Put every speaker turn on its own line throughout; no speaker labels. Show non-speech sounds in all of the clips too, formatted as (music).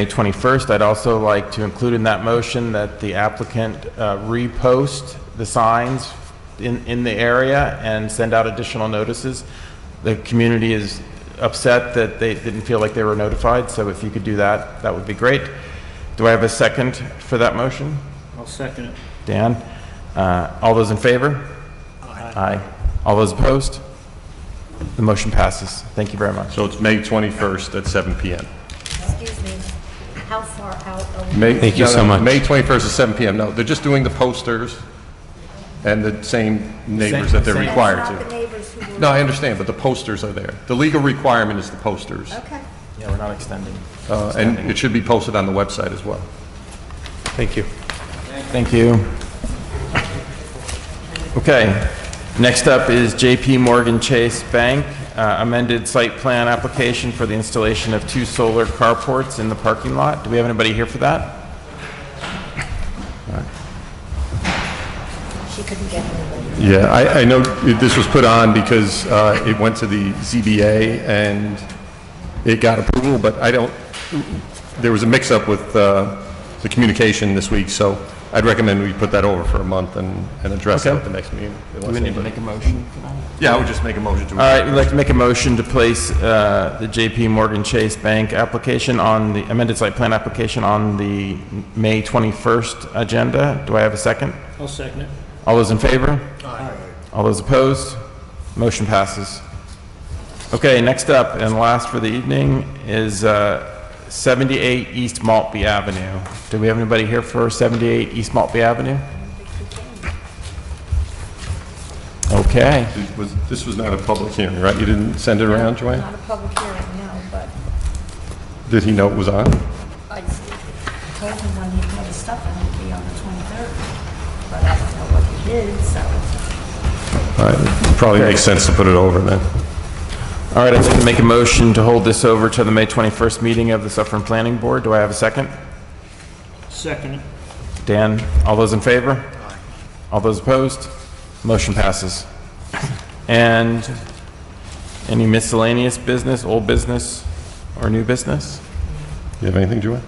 May 21st, I'd also like to include in that motion that the applicant uh, repost the signs in, in the area and send out additional notices. The community is upset that they didn't feel like they were notified, so if you could do that, that would be great. Do I have a second for that motion?
I'll second it.
Dan? Uh, All those in favor? Aye. All those opposed? The motion passes. Thank you very much.
So it's May 21st at 7 PM.
Excuse me, how far out are we?
May-
Thank you
no, no,
so much.
May 21st at 7 PM. No, they're just doing the posters and the same neighbors that they're
Same- same.
required
Not the
to.
neighbors who were.
No, I understand, but the posters are there. The legal requirement is the posters,
Okay.
Yeah, we're not extending.
uh, and it should be posted on the website as well.
Thank you.
Thank you. Okay, next up is JP Morgan Chase Bank, uh, amended site plan application for the installation of two solar carports in the parking lot. Do we have anybody here for that?
She couldn't get anybody.
Yeah, I, I know this was put on because uh, it went to the ZBA and it got approval, but I don't, there was a mix-up with uh, the communication this week, so I'd recommend we put that over for a month and, and address it
Okay.
at the next meeting.
Do
unless
we need to
anybody-
make a motion for that?
Yeah, I would just make a motion
All
to,
right, we'd like to make a motion to place uh, the JP Morgan Chase Bank application on the amended site plan application on the May 21st agenda. Do I have a second?
I'll second it.
All those in favor? All those opposed? Motion passes. Okay, next up and last for the evening is uh, 78 East Maltby Avenue. Do we have anybody here for 78 East Maltby Avenue? Okay.
It was- this was not a public hearing, right? You didn't send it around, Joanne?
Not a public hearing, no, but
Did he know it was on?
I told him when he'd get his stuff and it'd be on the 23rd. But I don't know what he did, so.
All right, Probably makes sense to put it over then.
All right, I'd like to make a motion to hold this over to the May 21st meeting of the Suffern Planning Board. Do I have a second?
Second it.
Dan, all those in favor? All those opposed? Motion passes. And any miscellaneous business, old business, or new business?
You have anything, Joanne?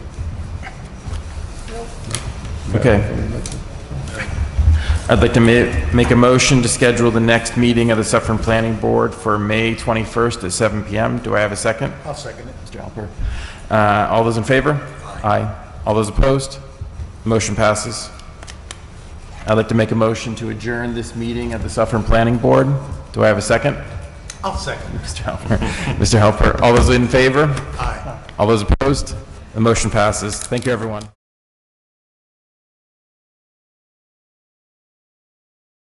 Okay. I'd like to ma- make a motion to schedule the next meeting of the Suffern Planning Board for May 21st at 7 PM. Do I have a second? I'll second it. Mr. Alper. Uh, All those in favor? Aye. All those opposed? Motion passes. I'd like to make a motion to adjourn this meeting of the Suffern Planning Board. Do I have a second? (laughs) I'll second. Mr. Helper. Mr. Helper, all those in favor? Aye. All those opposed? The motion passes. Thank you, everyone.